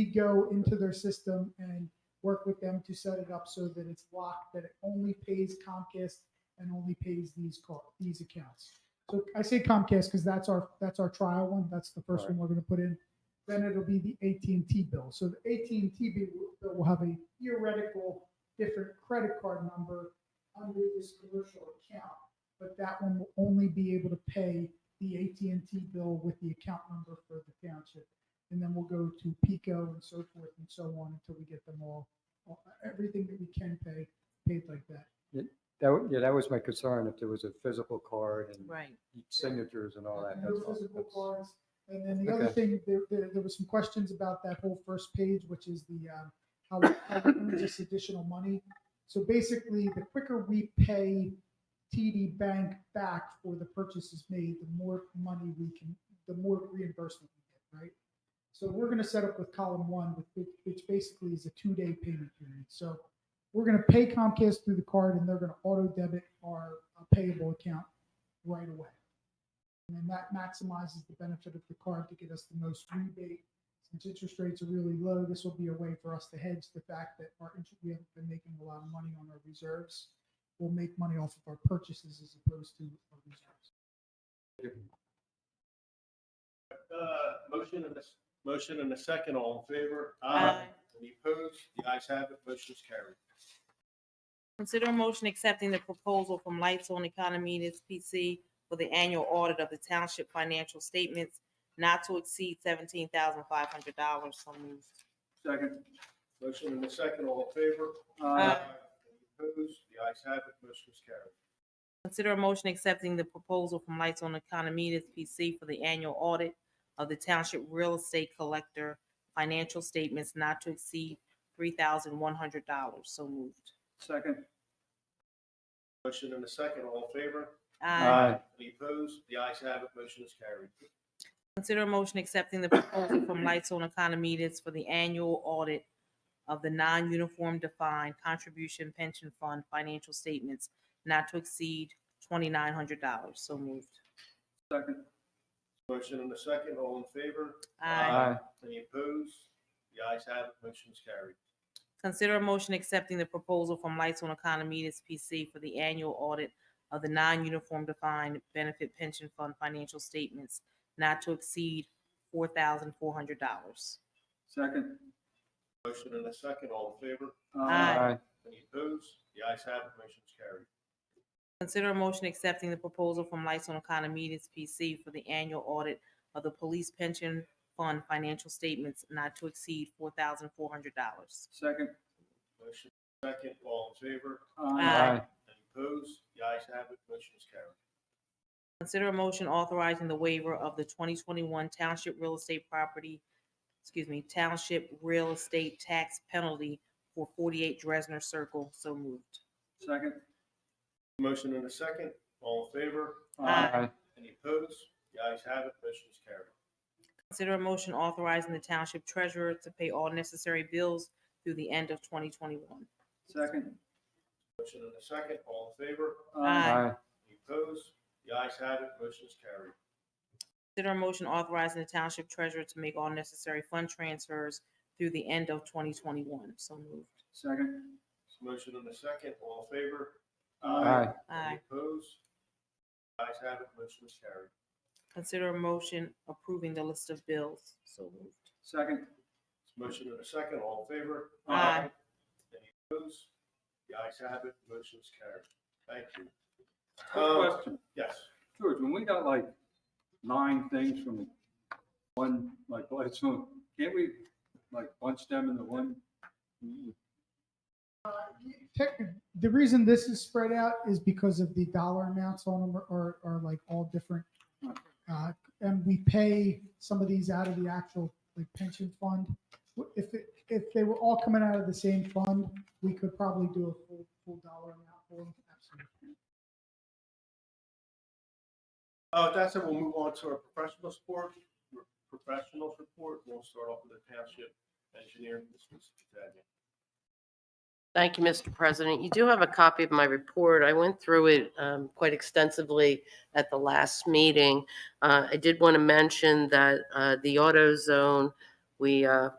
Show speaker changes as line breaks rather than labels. we go into their system and work with them to set it up so that it's locked, that it only pays Comcast and only pays these car, these accounts. So I say Comcast because that's our, that's our trial one. That's the first one we're going to put in. Then it'll be the AT&T bill. So the AT&T bill will- will have a theoretical different credit card number under this commercial account, but that one will only be able to pay the AT&T bill with the account number for the township. And then we'll go to Pico and so forth and so on until we get them all, all- everything that we can pay, paid like that.
That, wa- yeah, that was my concern, if there was a physical card and
Right.
signatures and all that.
No
that's all.
physical
That's-
cards. And then the other
Okay.
thing, there, there, there was some questions about that whole first page, which is the, um, how, we- how we earn this additional money. So basically, the quicker we pay TD Bank back for the purchases made, the more money we can, the more reimbursement we get, right? So we're gonna set up with column one, with- which, which basically is a two-day payment period. So we're gonna pay Comcast through the card and they're gonna auto debit our uh, payable account right away. And then that maximizes the benefit of the card to get us the most rebate. Since interest rates are really low, this will be a way for us to hedge the fact that our interest, we haven't been making a lot of money on our reserves. We'll make money off of our purchases as opposed to our reserves.
Uh, Motion and a, s- motion and a second, all in favor?
Aye.
Any opposed? The ayes have it, motion is carried.
Consider a motion accepting the proposal from Lights on Economy PC for the annual audit of the township financial statements not to exceed seventeen thousand five hundred dollars. So moved.
Second. Motion and a second, all in favor?
Aye.
Any opposed? The ayes have it, motion is carried.
Consider a motion accepting the proposal from Lights on Economy PC for the annual audit of the township real estate collector financial statements not to exceed three thousand one hundred dollars. So moved.
Second. Motion and a second, all in favor?
Aye.
Any opposed? The ayes have it, motion is carried.
Consider a motion accepting the proposal from Lights on Economides for the annual audit of the non-uniform defined contribution pension fund financial statements not to exceed twenty-nine hundred dollars. So moved.
Second. Motion and a second, all in favor?
Aye.
Any opposed? The ayes have it, motion is carried.
Consider a motion accepting the proposal from Lights on Economides PC for the annual audit of the non-uniform defined benefit pension fund financial statements not to exceed four thousand four hundred dollars.
Second. uh, Motion and a second, all in favor?
Aye.
Any opposed? The ayes have it, motion is carried.
Consider a motion accepting the proposal from Lights on Economides PC for the annual audit of the police pension fund financial statements not to exceed four thousand four hundred dollars.
Second. Motion second, all in favor?
Aye.
Any opposed? The ayes have it, motion is carried.
Consider a motion authorizing the waiver of the twenty twenty-one Township Real Estate Property, excuse me, Township Real Estate Tax Penalty for forty-eight Dresner Circle, so moved.
Second. Motion and a second, all in favor?
Aye.
Any opposed? The ayes have it, motion is carried.
Consider a motion authorizing the Township Treasurer to pay all necessary bills through the end of twenty twenty-one.
Second. Motion and a second, all in favor?
Aye.
Any opposed? The ayes have it, motion is carried.
Consider a motion authorizing the township treasurer to make all necessary fund transfers through the end of 2021. So moved.
Second. Motion and a second, all in favor?
Aye.
Aye.
Any opposed? The ayes have it, motion is carried.
Consider a motion approving the list of bills. So moved.
Second. Motion and a second, all in favor?
Aye.
Any opposed? The ayes have it, motion is carried. Thank you.
Quick
Um,
Question,
Yes,
George, when we got like nine things from one, like, lights on, can't we like bunch them into one?
Tech- The reason this is spread out is because of the dollar amounts on them are, are like all different. Uh, And we pay some of these out of the actual like pension fund. If, it- if they were all coming out of the same fund, we could probably do a full, full dollar amount for them. Absolutely.
uh, that's it, we'll move on to our professional support, professionals report. We'll start off with the township engineer, Mr. Taglia.
Thank you, Mr. President. You do have a copy of my report. I went through it um, quite extensively at the last meeting. Uh, I did want to mention that uh, the auto zone, we uh,